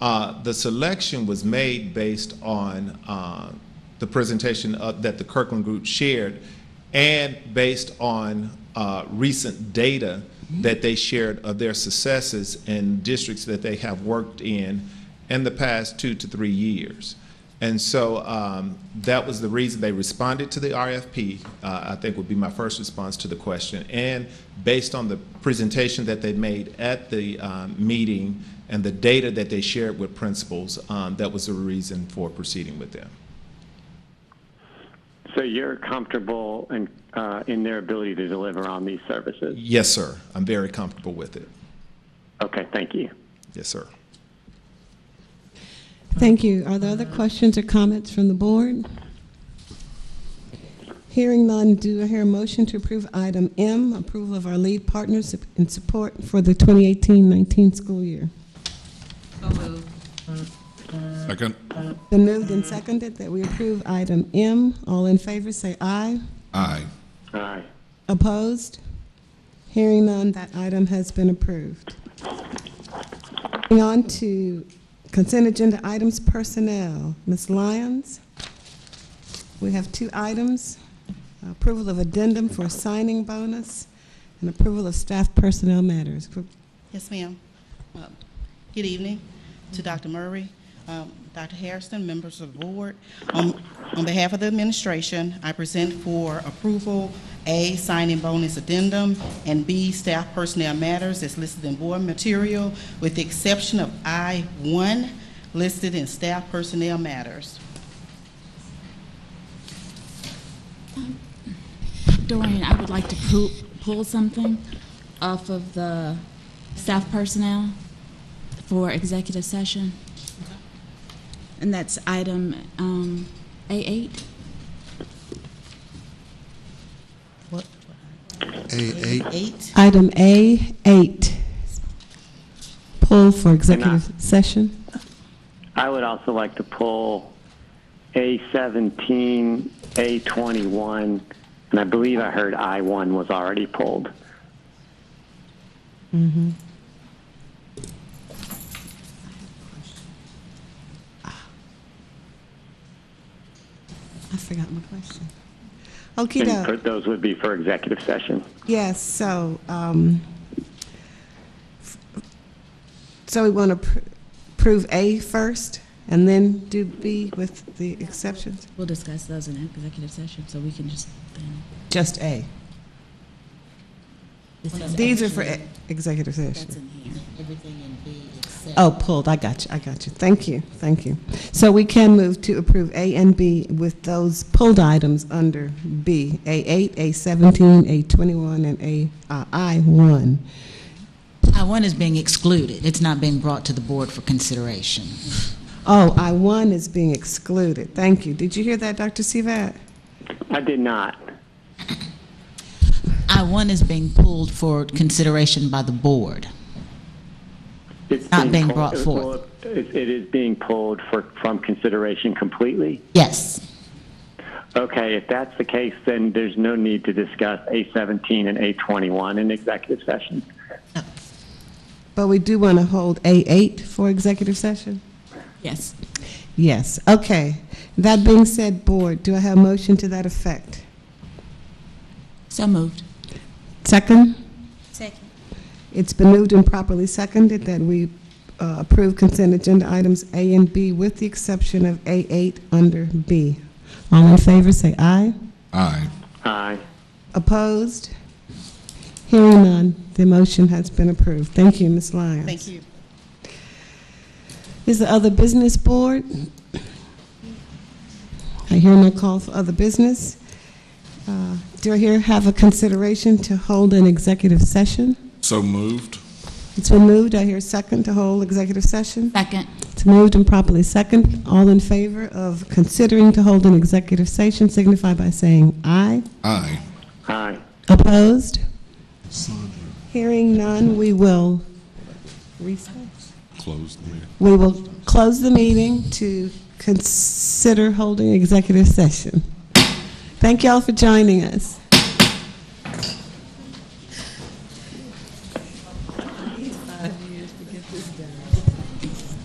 Uh, The selection was made based on uh, the presentation of- that the Kirkland Group shared and based on uh, recent data that they shared of their successes in districts that they have worked in in the past two to three years. And so um, that was the reason they responded to the RFP, uh, I think would be my first response to the question. And based on the presentation that they made at the um, meeting and the data that they shared with principals, um, that was the reason for proceeding with them. So you're comfortable in, uh, in their ability to deliver on these services? Yes, sir. I'm very comfortable with it. Okay, thank you. Yes, sir. Thank you. Are there other questions or comments from the board? Hearing none, do I hear a motion to approve item M, approval of our lead partners in support for the 2018-19 school year? So moved. Second. Been moved and seconded that we approve item M. All in favor, say aye. Aye. Aye. Opposed? Hearing none, that item has been approved. Moving on to consent agenda items personnel. Ms. Lyons, we have two items, approval of addendum for signing bonus and approval of staff personnel matters. Yes, ma'am. Uh, Good evening to Dr. Murray, um, Dr. Harrison, members of the board. Um, On behalf of the administration, I present for approval, A, signing bonus addendum, and B, staff personnel matters as listed in board material, with the exception of I-1 listed in staff personnel matters. Dorian, I would like to pull, pull something off of the staff personnel for executive session. And that's item um, A8. A8. Eight. Item A8, pull for executive And session. I would also like to pull A17, A21, and I believe I heard I1 was already pulled. I forgot my question. Okey And doke. for- those would be for executive session. Yes, so, um, so we want to prove A first and then do B with the exceptions? We'll discuss those in executive session, so we can just then. Just A. discuss These are for everything e- executive That's session. in here. Everything in B except. Oh, pulled, I got you, I got you. Thank you, thank you. So we can move to approve A and B with those pulled items under B, A8, A17, A21, and A, uh, I1. I-1 is being excluded. It's not being brought to the board for consideration. Oh, I1 is being excluded, thank you. Did you hear that, Dr. Sivat? I did not. I-1 is being pulled for consideration by the board. It's Not being pulled- brought well, forth. It it is being pulled for, from consideration completely. Yes. Okay, if that's the case, then there's no need to discuss A17 and A21 in executive session. But we do want to hold A8 for executive session? Yes. Yes, okay. That being said, Board, do I have a motion to that effect? So moved. Second? Second. It's been moved and properly seconded that we uh, approve consent agenda items A and B with the exception of A8 under B. All in favor, say aye. Aye. Aye. Opposed? Hearing none, the motion has been approved. Thank you, Ms. Lyons. Thank you. Is the other business board? I hear no call for other business. Uh, Do I hear have a consideration to hold an executive session? So moved. It's been moved, I hear second to hold executive session. Second. It's moved and properly second. All in favor of considering to hold an executive session signify by saying aye. Aye. Aye. Opposed? Hearing none, we will recess. Close the meeting. We will close the meeting to consider holding executive session. Thank y'all for joining us.